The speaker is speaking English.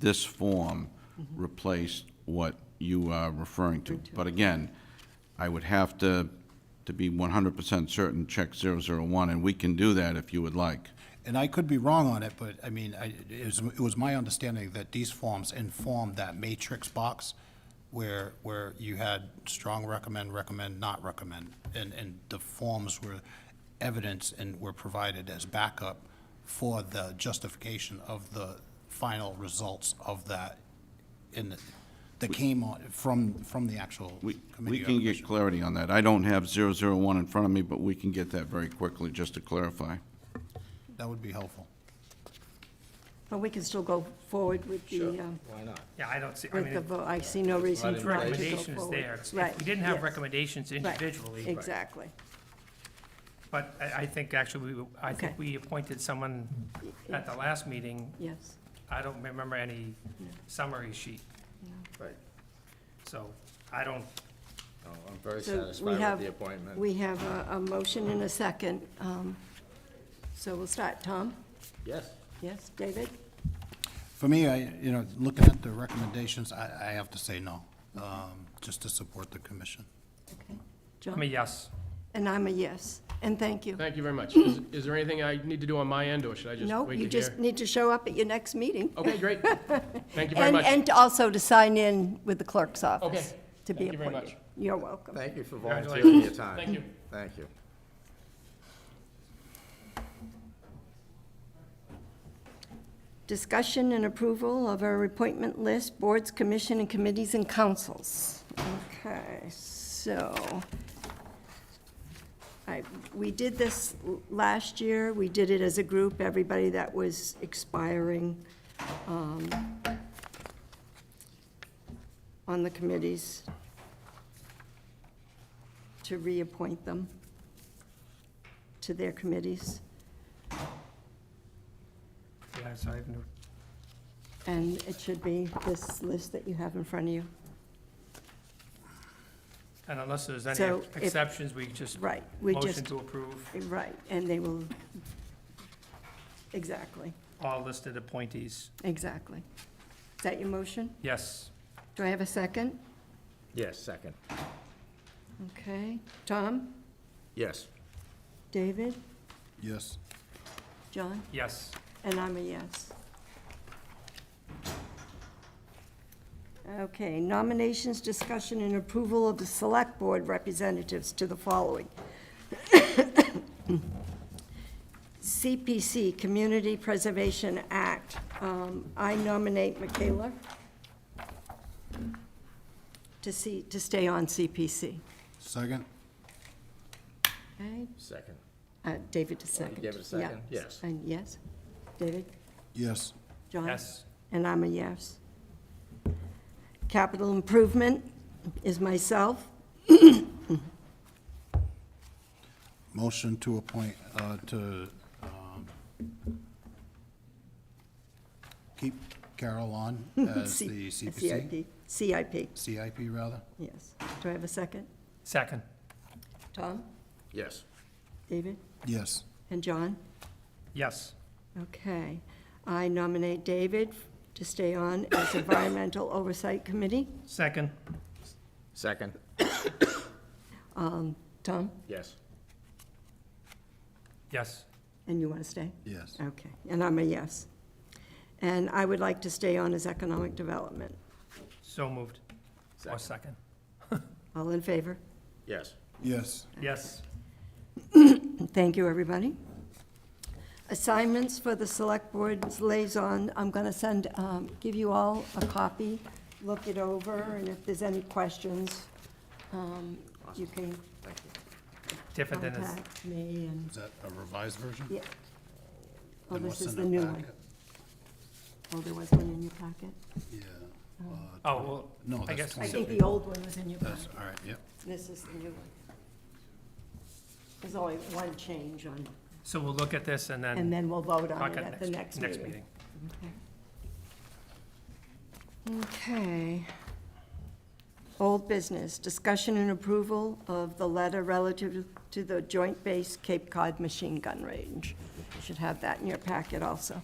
this form replaced what you are referring to. But again, I would have to, to be one hundred percent certain, check zero zero one, and we can do that if you would like. And I could be wrong on it, but I mean, I, it was, it was my understanding that these forms informed that matrix box where, where you had strong recommend, recommend, not recommend, and, and the forms were evidence and were provided as backup for the justification of the final results of that in, the- that came on, from, from the actual We, we committee. or can commission. get clarity on that. I don't have zero zero one in front of me, but we can get that very quickly, just to clarify. That would be helpful. But we can still go forward with the, um, Why not? Yeah, I don't see, I with the, mean, vote. I see no reason It's for not to go recommendations forward. there. If Right, we didn't have yes, recommendations right, individually, Exactly. but I, I think actually, we I Okay. think we appointed someone at the last meeting. Yes, I don't remember any summary sheet, Right. so I don't, No, I'm very so satisfied we with have, the appointment. we have a, a motion and a second. um, So we'll start, Tom? Yes. Yes, David? For me, I, you know, looking at the recommendations, I, I have to say no, um, just to support the commission. Okay. I John? mean, yes. And I'm a yes, and thank you. Thank you very much. Is is there anything I need to do on my end, or should I just No, wait you to just hear? need to show up at your next meeting. Okay, great. Thank you very And, much. and also to sign in with the clerk's office. Okay. To be Thank you very appointed. much. You're welcome. Thank you for volunteering your Congratulations. time. Thank you. Thank you. Discussion and approval of our appointment list, boards, commission, and committees and councils. Okay, so, I, we did this l- last year, we did it as a group, everybody that was expiring um, on the committees to reappoint them to their committees. Yeah, so I have no, And it should be this list that you have in front of you. and unless there's any So if- exceptions, we just Right, we motion just, to approve right, and they will, exactly, all listed appointees. exactly. Is that your motion? Yes, Do I have a second? Yes, second. Okay. Tom? Yes. David? Yes. John? yes. And I'm a yes. Okay, nominations, discussion, and approval of the Select Board representatives to the following. CPC, Community Preservation Act. Um, I nominate Michaela to see, to stay on CPC. Second? Okay, Second. uh, David to second. gave it a second? Yeah. Yes. And yes? David? Yes. John? Yes, And I'm a yes. Capital improvement is myself. Motion to appoint, uh, to, um, keep Carol on as C- the CPC, CIP, CIP, CIP rather. yes. Do I have a second? second, Tom, Yes. David, Yes. and John? yes. Okay. I nominate David to stay on as Environmental Oversight Committee. Second, Second. Tom, Yes. yes. and you want to stay? Yes. Okay, and I'm a yes. And I would like to stay on as Economic Development. So moved. Or Second. second, All in favor? Yes. Yes. yes. Thank you, everybody. Assignments for the Select Board's liaison, I'm going to send, um, give you all a copy, look it over, and if there's any questions, um, you can Oh, Thank you. Different than this. contact me and, Is that a revised version? yeah. Oh, Then this what's is in the our new one. packet? Oh, there was one in your packet? Yeah. Uh, Oh, well, No, I that's guess, I twenty. think the old one was in your That's, packet. all right, yep. This is the new one. There's only one change on, so we'll look at this and and then then we'll vote on talk it at at the next, next next meeting. meeting. Okay. Old business, discussion and approval of the letter relative to the Joint Base Cape Cod Machine Gun Range. You Should have that in your packet also.